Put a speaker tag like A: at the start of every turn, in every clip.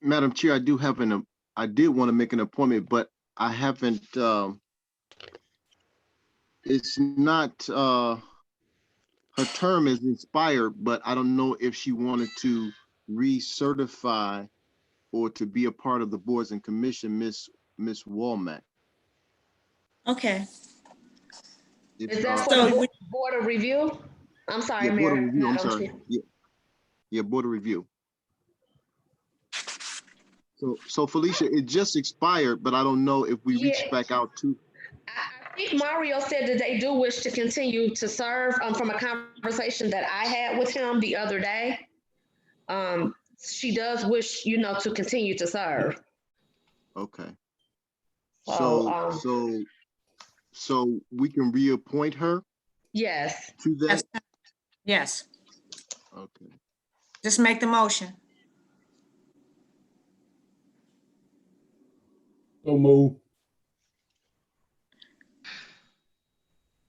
A: Madam Chair, I do have an, um, I did want to make an appointment, but I haven't, um, it's not, uh, her term is expired, but I don't know if she wanted to recertify or to be a part of the boards and commission, Miss, Miss Walmack.
B: Okay,
A: If,
C: Is that
A: uh,
C: for
B: So
C: the
B: we-
C: board of review? I'm sorry,
A: yeah, Board of
C: Mayor.
A: Review, I'm
C: Madam
A: sorry.
C: Chair.
A: Yeah. Yeah, Board of Review. So, so Felicia, it just expired, but I don't know if we reached
C: Yeah.
A: back out to,
C: I I think Mario said that they do wish to continue to serve, um, from a conversation that I had with him the other day. Um, she does wish, you know, to continue to serve.
A: okay.
C: So,
A: So,
C: um,
A: so, so we can reappoint her
C: yes.
A: to that?
B: Yes. yes,
A: Okay,
B: just make the motion.
D: So move.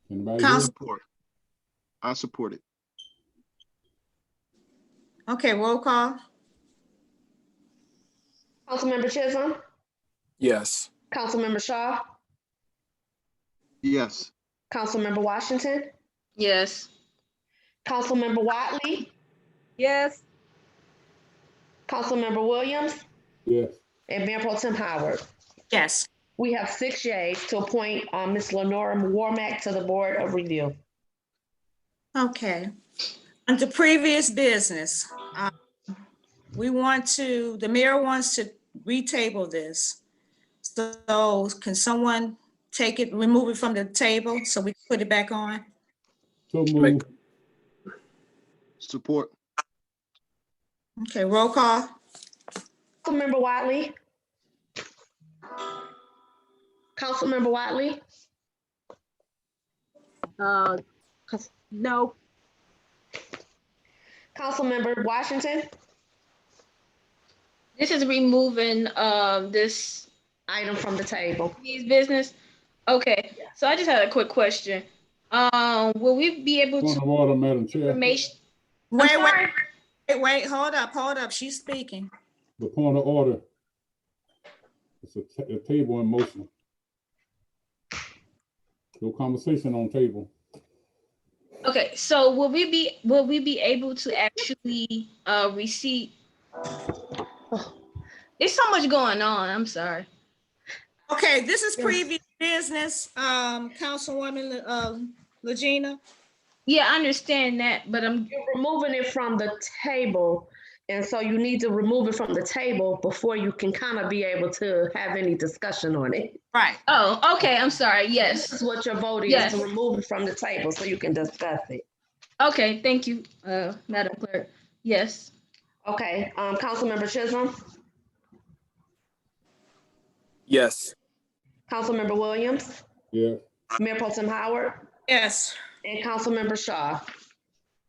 D: Anybody?
B: Council-
A: support. I support it.
B: Okay, roll call,
C: Councilmember Chisholm,
E: Yes.
C: Councilmember Shaw,
A: Yes,
C: Councilmember Washington,
F: Yes.
C: Councilmember Watley,
F: Yes.
C: Councilmember Williams,
D: Yes,
C: and Mayor Pro Tim Howard.
B: yes.
C: We have six yays to appoint, um, Ms. Lenora Warmack to the Board of Review.
B: Okay. Under previous business, um, we want to, the mayor wants to retable this. So can someone take it, remove it from the table so we can put it back on?
D: so
E: Make-
D: move.
A: support.
B: Okay, roll call,
C: Councilmember Watley? Councilmember Watley?
F: Uh, 'cause- no.
C: Councilmember Washington?
F: This is removing, um, this,
C: Item from the table.
F: these business. Okay, so I just had a quick question. Um, will we be able
D: Point
F: to
D: of order, Madam Chair.
F: information? I'm
B: wait, wait,
F: sorry.
B: wait, wait, hold up, hold up, she's speaking.
D: The point of order. It's a ta- a table in motion. No conversation on table.
F: Okay, so will we be, will we be able to actually, uh, receive? There's so much going on, I'm sorry.
B: Okay, this is previous business, um, Councilwoman, uh, Legina.
F: Yeah, I understand that, but I'm,
C: You're removing it from the table, and so you need to remove it from the table before you can kind of be able to have any discussion on it.
B: Right.
F: oh, okay, I'm sorry,
C: This
F: yes.
C: is what your vote is,
F: Yes.
C: to remove it from the table so you can discuss it.
F: Okay, thank you, uh, Madam Clerk. Yes.
C: Okay, um, Councilmember Chisholm,
E: Yes.
C: Councilmember Williams,
D: Yeah,
C: Mayor Pro Tem Howard,
B: Yes,
C: and Councilmember Shaw.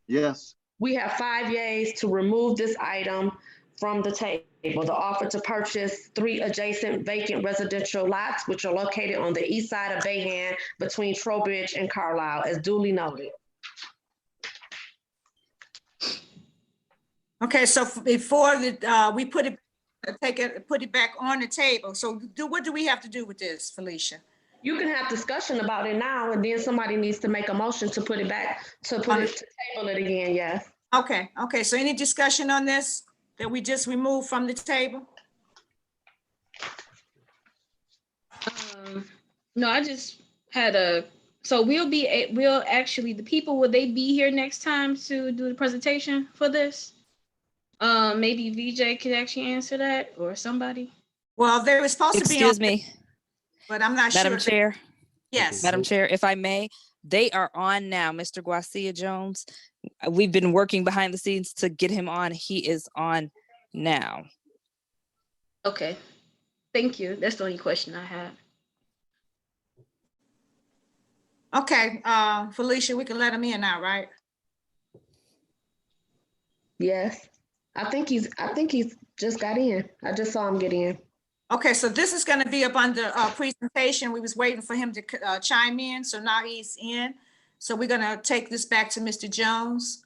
A: Yes,
C: We have five yays to remove this item from the table. The offer to purchase three adjacent vacant residential lots, which are located on the east side of Bayhand between Trowbridge and Carlisle, as duly noted.
B: okay, so f- before the, uh, we put it, take it, put it back on the table, so do, what do we have to do with this, Felicia?
C: You can have discussion about it now, and then somebody needs to make a motion to put it back, to put it, to table it again, yes.
B: Okay, okay, so any discussion on this that we just removed from the table?
F: Um, no, I just had a, so we'll be, a- we'll actually, the people, will they be here next time to do the presentation for this? Um, maybe VJ could actually answer that or somebody.
B: Well, they were supposed to be on,
G: Excuse me,
B: but I'm not sure.
G: Madam
B: if-
G: Chair,
B: Yes,
G: Madam Chair, if I may, they are on now, Mr. Guacia Jones. Uh, We've been working behind the scenes to get him on. He is on now.
F: Okay, thank you. That's the only question I had.
B: okay, uh, Felicia, we can let him in now, right?
C: Yes. I think he's, I think he's just got in. I just saw him get in.
B: Okay, so this is gonna be up under, uh, presentation. We was waiting for him to, c- uh, chime in, so now he's in. So we're gonna take this back to Mr. Jones.